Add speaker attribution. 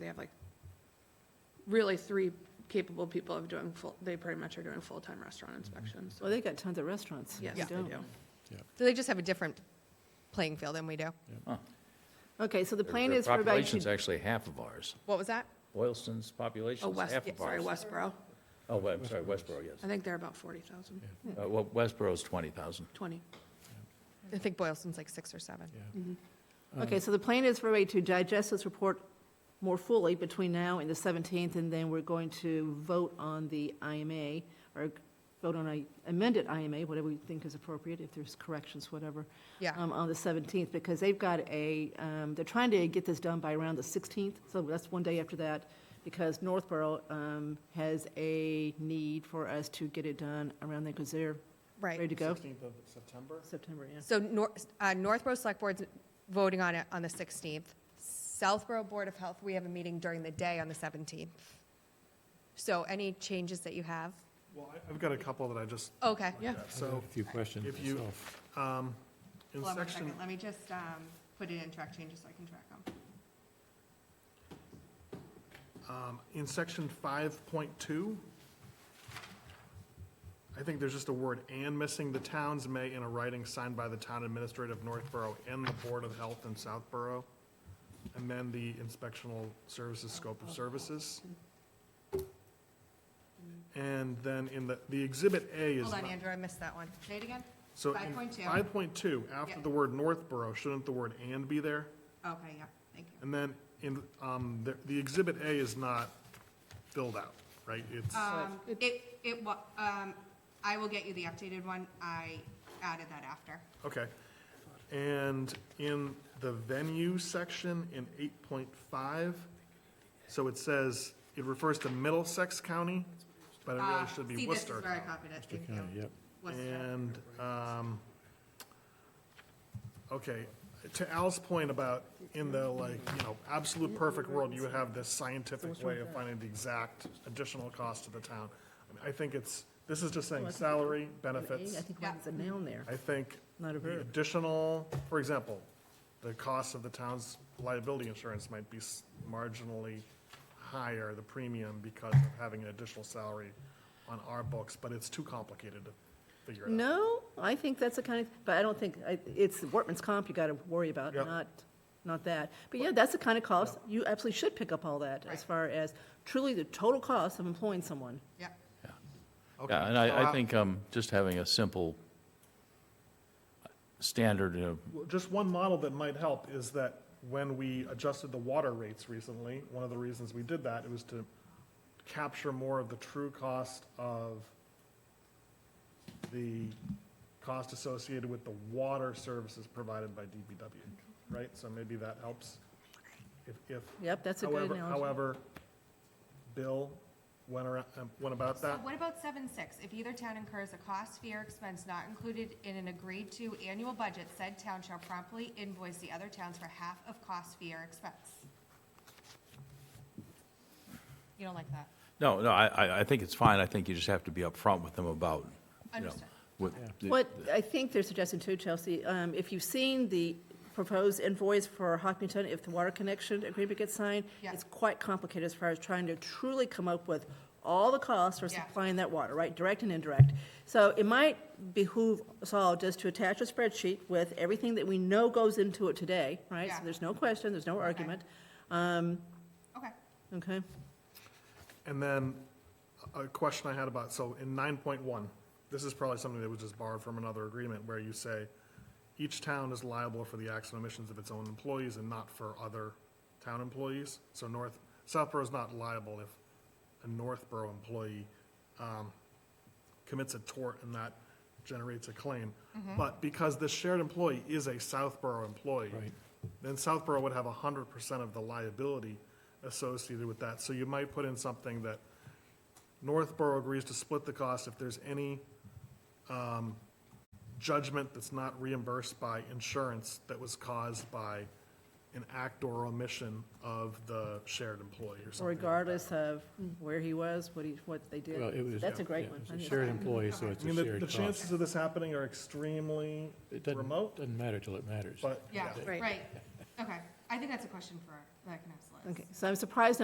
Speaker 1: have like really three capable people of doing full, they pretty much are doing full-time restaurant inspections. so-
Speaker 2: Well, they got tons of restaurants.
Speaker 1: Yes,
Speaker 2: We
Speaker 1: they
Speaker 2: don't.
Speaker 1: do.
Speaker 3: So they just have a different playing field than we do.
Speaker 2: Okay, so the
Speaker 4: Their-
Speaker 2: plan
Speaker 4: their
Speaker 2: is for about,
Speaker 4: Population's actually half of ours.
Speaker 3: What was that?
Speaker 4: Boylston's
Speaker 1: Oh,
Speaker 4: population's
Speaker 1: West,
Speaker 4: half of
Speaker 1: sorry,
Speaker 4: ours.
Speaker 1: Westboro.
Speaker 4: Oh, well, I'm sorry, Westboro,
Speaker 1: I
Speaker 4: yes.
Speaker 1: think they're about 40,000,
Speaker 4: Uh, Well, Westboro's 20,000.
Speaker 1: 20.
Speaker 3: I think Boylston's like six or seven.
Speaker 2: Mm-hmm. okay, so the plan is for everybody to digest this report more fully between now and the 17th, and then we're going to vote on the IMA, or vote on a amended IMA, whatever we think is appropriate, if there's corrections, whatever,
Speaker 3: Yeah.
Speaker 2: um, on the 17th, because they've got a, um, they're trying to get this done by around the 16th, so that's one day after that, because Northborough um, has a need for us to get it done around then, because they're ready
Speaker 3: Right.
Speaker 2: to go.
Speaker 5: Sixteenth of September?
Speaker 2: September, yeah.
Speaker 3: So Nor- uh, Northborough Select Board's voting on it on the 16th. Southborough Board of Health, we have a meeting during the day on the 17th. So any changes that you have?
Speaker 5: Well, I- I've got a couple that I just,
Speaker 3: Okay.
Speaker 1: Yeah.
Speaker 5: so
Speaker 6: A few questions
Speaker 5: if you,
Speaker 6: myself.
Speaker 5: um, in
Speaker 3: Hold on one
Speaker 5: section,
Speaker 3: second. Let me just um, put it in track changes so I can track them.
Speaker 5: um, in section five point two, I think there's just a word "and" missing. The towns may, in a writing signed by the town administrator of Northborough and the Board of Health in Southborough, and then the inspectional services scope
Speaker 3: Oh,
Speaker 5: of services. And then in the, the exhibit A is.
Speaker 3: Hold on,
Speaker 5: not-
Speaker 3: Andrew, I missed that one. Say it again?
Speaker 5: So in
Speaker 3: 5.2.
Speaker 5: 5.2, after
Speaker 3: Yeah.
Speaker 5: the word Northborough, shouldn't the word "and" be there?
Speaker 3: Okay, yeah, thank you.
Speaker 5: And then in, um, the, the exhibit A is not filled out, right? It's,
Speaker 7: Um, It, it, wa- um, I will get you the updated one. I added that after.
Speaker 5: okay. And in the venue section in 8.5, so it says, it refers to Middlesex County, but it really
Speaker 7: Uh,
Speaker 5: should be
Speaker 7: See, this is
Speaker 5: Worcester.
Speaker 7: where I copied it. Thank
Speaker 6: County,
Speaker 7: you.
Speaker 6: yep.
Speaker 7: Worcester.
Speaker 5: And, um, okay, to Al's point about in the like, you know, absolute perfect world, you would have this scientific way of finding the exact additional cost to the town. I mean, I think it's, this is just saying salary, benefits.
Speaker 2: I think mine's a noun there.
Speaker 5: I think
Speaker 2: Not a
Speaker 5: the
Speaker 2: verb.
Speaker 5: additional, for example, the cost of the town's liability insurance might be s- marginally higher, the premium, because of having an additional salary on our books, but it's too complicated to figure it out.
Speaker 2: No, I think that's the kind of, but I don't think, I- it's workman's comp you got to worry about,
Speaker 5: Yeah.
Speaker 2: not, not that. But yeah, that's the kind of cost, you absolutely should pick up all that as far as truly the total cost of employing someone.
Speaker 7: Yep.
Speaker 5: Okay,
Speaker 4: Yeah, and
Speaker 5: so
Speaker 4: I, I think um, just having a simple standard of
Speaker 5: Well, Just one model that might help is that when we adjusted the water rates recently, one of the reasons we did that, it was to capture more of the true cost of the cost associated with the water services provided by DPW, right? So maybe that helps. If, if,
Speaker 2: Yep, that's a good
Speaker 5: however,
Speaker 2: analogy.
Speaker 5: however, Bill went around, um, went about
Speaker 7: So
Speaker 5: that.
Speaker 7: what about seven six? If either town incurs a cost, fee, or expense not included in an agreed-to annual budget, said town shall promptly invoice the other towns for half of cost, fee, or expense. You don't like that?
Speaker 4: No, no, I, I- I think it's fine. I think you just have to be upfront with them about, you know.
Speaker 7: Understood.
Speaker 4: what-
Speaker 2: What I think they're suggesting too, Chelsea, um, if you've seen the proposed invoice for Hopkinton, if the water connection agreement gets signed,
Speaker 7: Yeah.
Speaker 2: it's quite complicated as far as trying to truly come up with all the costs for
Speaker 7: Yeah.
Speaker 2: supplying that water, right, direct and indirect. So it might behoove us all just to attach a spreadsheet with everything that we know goes into it today, right? So
Speaker 7: Yeah.
Speaker 2: there's no question, there's no argument,
Speaker 7: Okay.
Speaker 2: okay?
Speaker 5: And then a a question I had about, so in nine point one, this is probably something that was just borrowed from another agreement where you say, each town is liable for the acts and omissions of its own employees and not for other town employees. So North, Southborough is not liable if a Northborough employee, um, commits a tort and that generates a claim. But because the shared employee is a Southborough employee, then Southborough would have hundred percent of the liability associated with that. So you might put in something that Northborough agrees to split the cost if there's any um, judgment that's not reimbursed by insurance that was caused by an act or omission of the shared employee or something.
Speaker 2: Regardless of where he was, what he, what they
Speaker 6: Well, it
Speaker 2: did.
Speaker 6: was-
Speaker 2: That's a
Speaker 6: yeah,
Speaker 2: great one.
Speaker 6: it's
Speaker 2: I think
Speaker 6: a
Speaker 2: it's-
Speaker 6: Shared employee, so it's
Speaker 5: I
Speaker 6: a
Speaker 5: mean, the, the
Speaker 6: shared cost.
Speaker 5: chances of this happening are extremely
Speaker 6: It doesn't,
Speaker 5: remote,
Speaker 6: doesn't matter till it matters.
Speaker 5: but.
Speaker 7: Yeah,
Speaker 1: Right.
Speaker 7: right. Okay. I think that's a question for, that can ask Liz.
Speaker 2: Okay, so I'm surprised